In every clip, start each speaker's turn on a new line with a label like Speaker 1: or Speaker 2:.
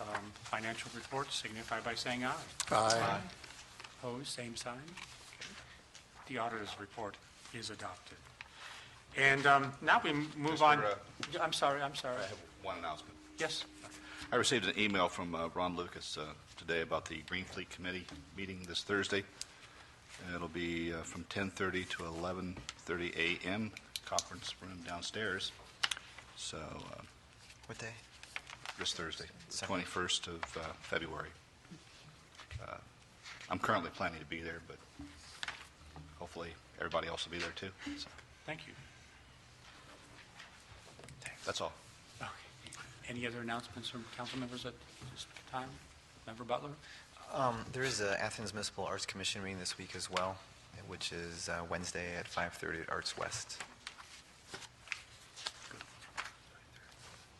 Speaker 1: um, financial reports signify by saying aye.
Speaker 2: Aye.
Speaker 1: Opposed, same sign. Okay. The auditor's report is adopted. And um, now we move on.
Speaker 3: Mr., uh,
Speaker 1: I'm sorry, I'm sorry.
Speaker 3: I have one announcement.
Speaker 1: Yes,
Speaker 3: I received an email from uh, Ron Lucas uh, today about the Green Fleet Committee meeting this Thursday. And It'll be uh, from 10:30 to 11:30 a.m., conference room downstairs. So uh,
Speaker 2: What day?
Speaker 3: this Thursday, the
Speaker 2: Second.
Speaker 3: 21st of uh, February. Uh, I'm currently planning to be there, but hopefully everybody else will be there too. So,
Speaker 1: thank you.
Speaker 3: That's all.
Speaker 1: Okay. Any other announcements from council members at this time? Member Butler?
Speaker 2: Um, there is a Athens Municipal Arts Commission meeting this week as well, which is uh, Wednesday at 5:30 at Arts West.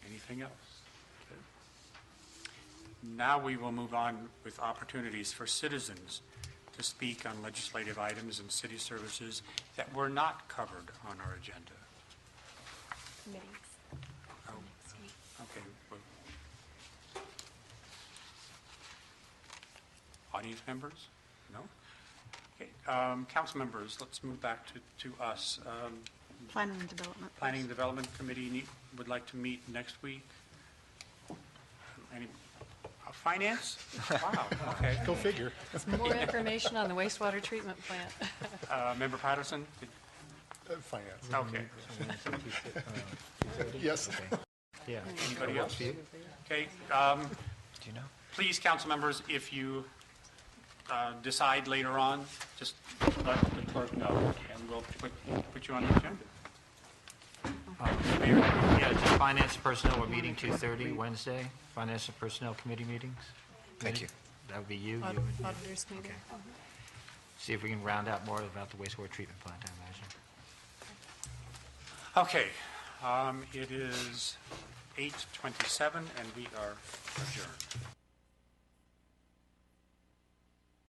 Speaker 1: Anything else? Okay. Now we will move on with opportunities for citizens to speak on legislative items and city services that were not covered on our agenda.
Speaker 4: committees
Speaker 1: Oh,
Speaker 4: next week.
Speaker 1: Okay. well- Audience members? No? Okay, um, council members, let's move back to, to us. Um,
Speaker 5: Planning and development.
Speaker 1: Planning and Development Committee need- would like to meet next week. Any, uh, finance? Wow, okay.
Speaker 6: Go figure.
Speaker 7: More information on the wastewater treatment plant.
Speaker 1: Uh, Member Patterson? did-
Speaker 6: Uh, Finance.
Speaker 1: Okay.
Speaker 6: Yes.
Speaker 2: Yeah.
Speaker 1: Anybody else? Okay, um,
Speaker 2: Do you know?
Speaker 1: please, council members, if you uh, decide later on, just let the clerk know, and we'll put, put you on the agenda. Um, Mayor,
Speaker 8: Yeah, it's a finance personnel, we're meeting 2:30 Wednesday, finance and personnel committee meetings.
Speaker 2: Thank you.
Speaker 8: That would be you, you and
Speaker 7: Aud-
Speaker 8: you.
Speaker 7: Auditors meeting.
Speaker 8: Okay. See if we can round out more about the wastewater treatment plant, I imagine.
Speaker 1: Okay, um, it is 8:27, and we are adjourned.